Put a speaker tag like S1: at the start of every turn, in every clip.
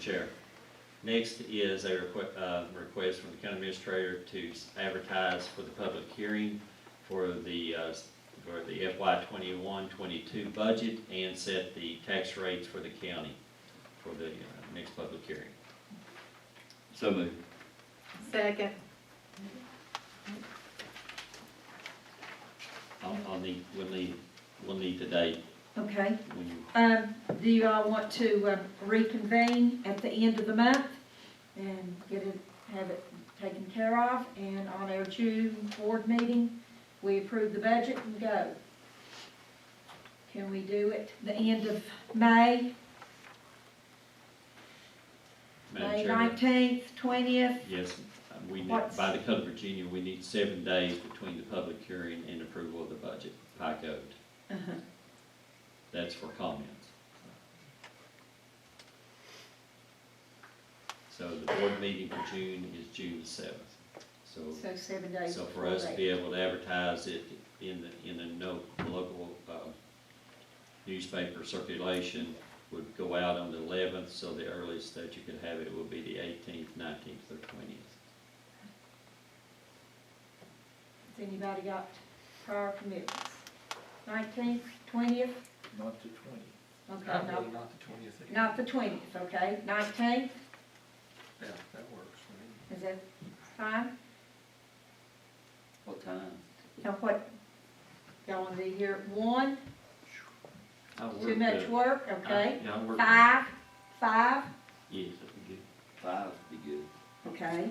S1: Chair. Next is a requ- uh, request from the county administrator to s- advertise for the public hearing for the, uh, s- for the FY 21-22 budget and set the tax rates for the county for the uh, next public hearing.
S2: So moved.
S3: Second.
S1: I'll, I'll need, we'll need, we'll need the date
S4: Okay,
S1: when you,
S4: um, do you all want to um, reconvene at the end of the month and get it, have it taken care of? And on our June board meeting, we approve the budget and go. Can we do it the end of May,
S1: Madam
S4: May
S1: Chair.
S4: nineteenth, twentieth?
S1: Yes, um, we need,
S4: What's-
S1: by the Code of Virginia, we need seven days between the public hearing and approval of the budget by code. That's for comments. So the board meeting for June is June the seventh. So,
S4: So seven days.
S1: so for
S4: before
S1: us to
S4: that.
S1: be able to advertise it in the, in the no, local, uh, newspaper circulation would go out on the eleventh, so the earliest that you could have it would be the eighteenth, nineteenth, or twentieth.
S4: Has anybody got prior commitments? Nineteenth, twentieth?
S5: Not the twentieth.
S4: Okay,
S5: Probably
S4: no,
S5: not the twentieth.
S4: not the twentieth, okay, nineteenth?
S5: Yeah, that works for me.
S4: Is that fine?
S2: What time?
S4: Now what, y'all wanna be here at one,
S1: I
S4: too much work, okay?
S1: Yeah, I work.
S4: Five, five,
S1: Yes, that'd be good.
S2: Five would be good.
S4: okay,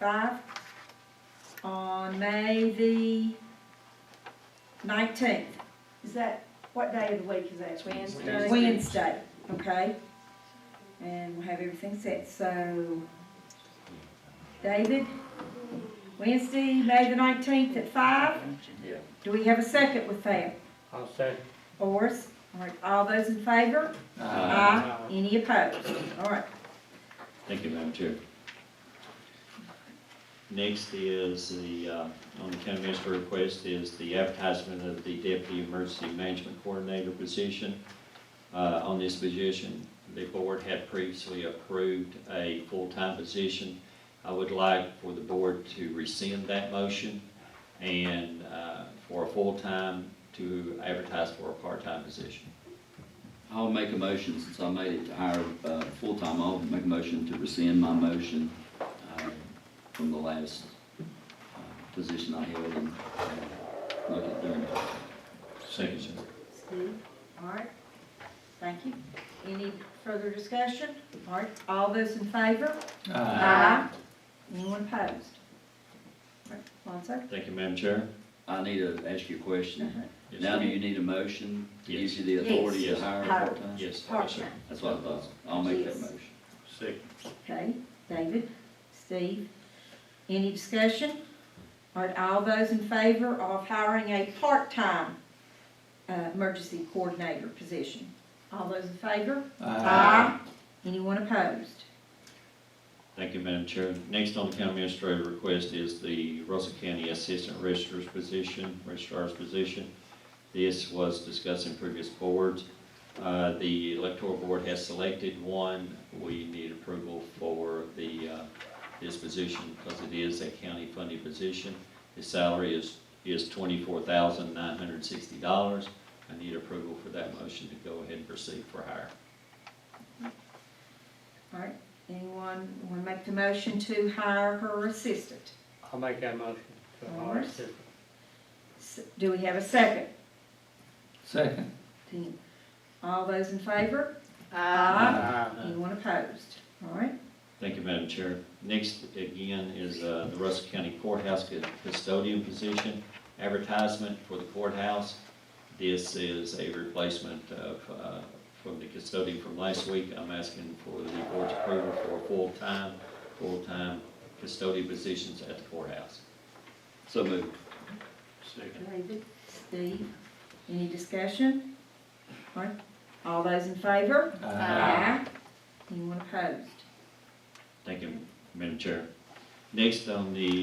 S4: five. On May the nineteenth, is that, what day of the week is that?
S3: Wednesday.
S4: Wednesday, okay? And we'll have everything set, so, David, Wednesday, May the nineteenth at five?
S2: Yeah.
S4: Do we have a second with that?
S5: I'll say.
S4: Orrs, all right, all those in favor? Aye. Any opposed? All right,
S1: Thank you, Madam Chair. Next is the, uh, on the county minister request is the advertisement of the deputy emergency management coordinator position. Uh, On this position, the board had previously approved a full-time position. I would like for the board to rescind that motion and uh, for a full-time to advertise for a part-time position.
S2: I'll make a motion, since I made it to hire, uh, full-time, I'll make a motion to rescind my motion, uh, from the last, uh, position I held and, uh, look at during.
S1: Second, sir.
S4: Steve, all right, thank you. Any further discussion? All right, all those in favor?
S2: Uh,
S4: Aye. Anyone opposed? All right, Lonzo?
S1: Thank you, Madam Chair.
S2: I need to ask you a question.
S1: Yes,
S2: Now,
S1: sir.
S2: do you need a motion to give
S1: Yes.
S2: you the authority
S1: Yes.
S2: to hire
S4: Hire.
S2: a part-time?
S1: Yes, yes, sir.
S4: Part-time,
S2: That's what I thought. I'll make that
S4: Yes.
S2: motion.
S1: Second.
S4: okay, David, Steve, any discussion? All right, all those in favor of hiring a part-time, uh, emergency coordinator position? All those in favor?
S1: Uh,
S4: Aye. Uh, Anyone opposed?
S1: Thank you, Madam Chair. Next on the county administrator request is the Russell County Assistant Registrar's position, Registrar's position. This was discussed in previous boards. Uh, The electoral board has selected one. We need approval for the, uh, this position because it is a county-funded position. The salary is, is twenty-four thousand nine hundred and sixty dollars. I need approval for that motion to go ahead and proceed for hire.
S4: All right, anyone want to make the motion to hire her assistant?
S6: I'll make that motion to hire
S4: Alright.
S6: assistant.
S4: S- Do we have a second?
S2: Second.
S4: Ten. All those in favor? Anyone opposed? All right,
S1: Thank you, Madam Chair. Next, again, is uh, the Russell County Courthouse cu- Custodian position, advertisement for the courthouse. This is a replacement of, uh, from the custodian from last week. I'm asking for the board's approval for a full-time, full-time custodian positions at the courthouse.
S2: So moved.
S4: David, Steve, any discussion? All right, all those in favor? Aye. Anyone opposed?
S1: Thank you, Madam Chair. Next on the